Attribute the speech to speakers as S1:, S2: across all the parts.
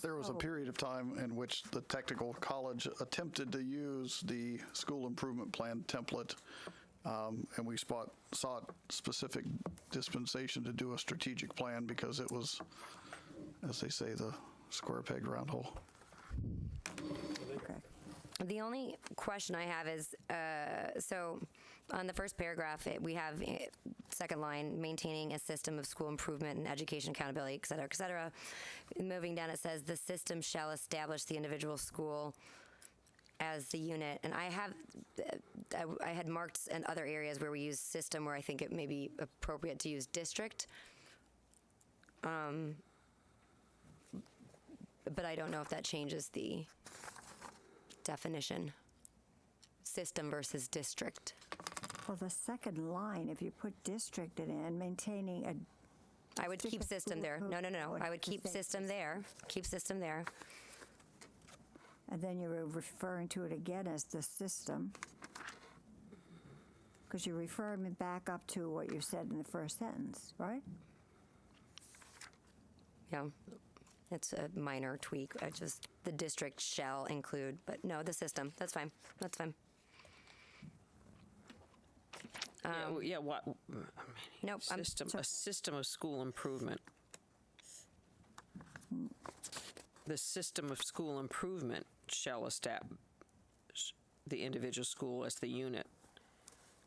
S1: there
S2: Oh.
S1: was a period of time in which the technical college attempted to use the school improvement plan template, um, and we spot, sought specific dispensation to do a strategic plan because it was, as they say, the square peg round hole.
S3: The only question I have is, uh, so on the first paragraph, it, we have uh, second line, maintaining a system of school improvement and education accountability, et cetera, et cetera. Moving down, it says the system shall establish the individual school as the unit. And I have, I, I had marked in other areas where we use system where I think it may be appropriate to use district. Um, but I don't know if that changes the definition system versus district.
S2: Well, the second line, if you put districted in, maintaining a,
S3: I would keep
S2: District
S3: system
S2: school
S3: there. No, no, no.
S2: improvement
S3: I would
S2: plan.
S3: keep system there. Keep system there.
S2: and then you're referring to it again as the system. Because you're referring me back up to what you said in the first sentence, right?
S3: Yeah. It's a minor tweak. I just, the district shall include, but no, the system. That's fine. That's fine.
S4: Yeah, w- yeah, what,
S3: Nope. Um, I'm,
S4: system, a system of school improvement. The system of school improvement shall establish the individual school as the unit.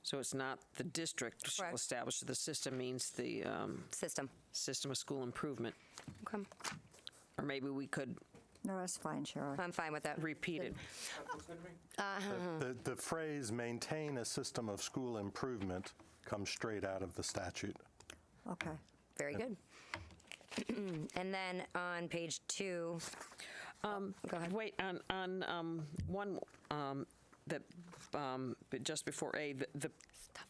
S4: So it's not the district shall
S3: Correct.
S4: establish, the system means the um,
S3: system.
S4: system of school improvement.
S3: Okay.
S4: Or maybe we could
S2: No, that's fine, Cheryl.
S3: I'm fine with that.
S4: repeat it.
S5: The, the phrase maintain a system of school improvement comes straight out of the statute.
S2: Okay.
S3: Very good. and then on page two,
S4: Um,
S3: Go ahead.
S4: Wait, on, on um, one, um, that, um, but just before A, the- the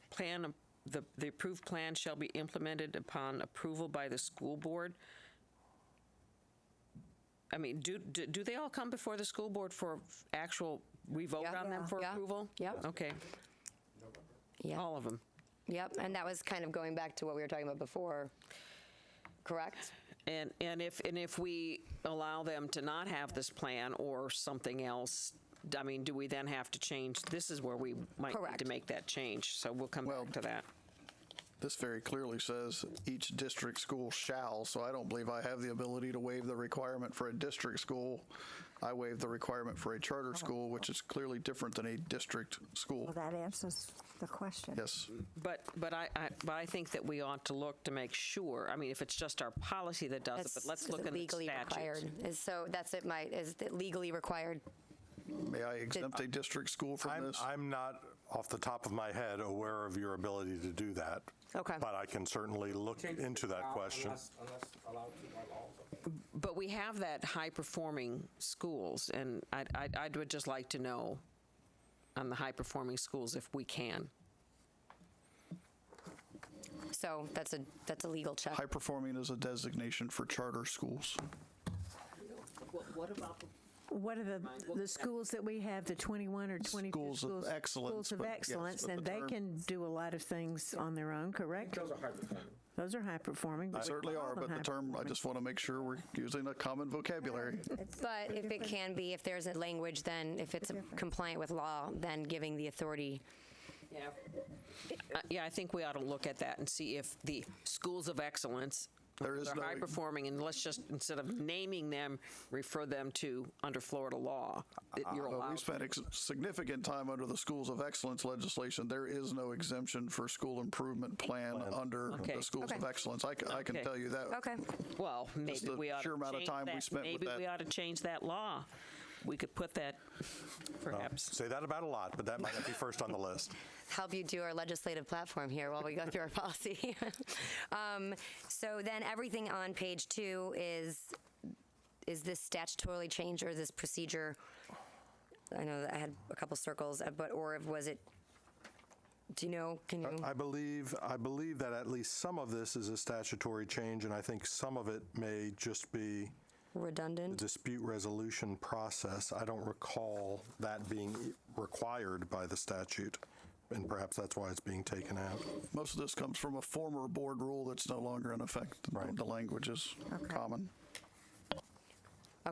S4: plan, of- the the approved plan shall be implemented upon approval by the school board. I mean, do, do do they all come before the school board for actual, we vote
S3: Yeah.
S4: on them
S3: Yeah.
S4: for
S3: Yeah.
S4: approval?
S3: Yep.
S4: Okay,
S3: yeah.
S4: all of them.
S3: Yep. And that was kind of going back to what we were talking about before, correct?
S4: And, and if, and if we allow them to not have this plan or something else, I mean, do we then have to change? This is where we might need
S3: Correct.
S4: to make that change, so we'll come
S1: Well-
S4: back to that.
S1: This very clearly says each district school shall, so I don't believe I have the ability to waive the requirement for a district school. I waive the requirement for a charter school, which is clearly different than a district school.
S2: Oh. Well, that answers the question.
S1: Yes,
S4: But, but I, I- but I think that we ought to look to make sure, I mean, if it's just our policy that does it, but let's
S3: is
S4: look
S3: it
S4: in the
S3: legally
S4: statutes.
S3: required. Is so that's it. My is it legally required?
S1: may I exempt a district school from
S5: I'm,
S1: this?
S5: I'm not, off the top of my head, aware of your ability to do that.
S3: Okay.
S5: But I can certainly look into that question.
S4: But we have that high-performing schools, and I, I, I would just like to know on the high-performing schools if we can.
S3: So that's a that's a legal check.
S1: High performing is a designation for charter schools.
S6: What are the, the schools that we have, the 21 or 22 schools?
S1: Schools of excellence,
S6: Schools of
S1: but yes,
S6: excellence,
S1: but
S6: and
S1: the
S6: they
S1: term-
S6: can do a lot of things on their own, correct? Those are high performing. Those are high performing.
S1: They certainly are, but the term, I just want to make sure we're using a common vocabulary.
S3: But if it can be, if there's a language, then if it's compliant with law, then giving the authority.
S4: Uh, Yeah, I think we ought to look at that and see if the schools of excellence
S1: There is
S4: are
S1: no-
S4: high-performing, and let's just, instead of naming them, refer them to, under Florida law, that you're
S1: But we
S4: allowed.
S1: spent ex- significant time under the Schools of Excellence legislation. There is no exemption for school improvement plan under
S4: Okay.
S1: the Schools of
S3: Okay.
S1: Excellence. I, c- I can
S4: Okay.
S1: tell you that.
S3: Okay.
S4: Well, maybe
S1: the
S4: we ought
S1: sheer
S4: to
S1: amount of
S4: change
S1: time we
S4: that-
S1: spent with that.
S4: Maybe we ought to change that law. We could put that, perhaps.
S5: Say that about a lot, but that might not be first on the list.
S3: help you do our legislative platform here while we go through our policy. um, so then everything on page two is is this statutorily changed or this procedure? I know that I had a couple circles, uh, but or if- was it? Do you know? Can you?
S5: I believe, I believe that at least some of this is a statutory change, and I think some of it may just be the
S3: redundant.
S5: dispute resolution process. I don't recall that being required by the statute, and perhaps that's why it's being taken out.
S1: Most of this comes from a former board rule that's no longer in effect. The language is common.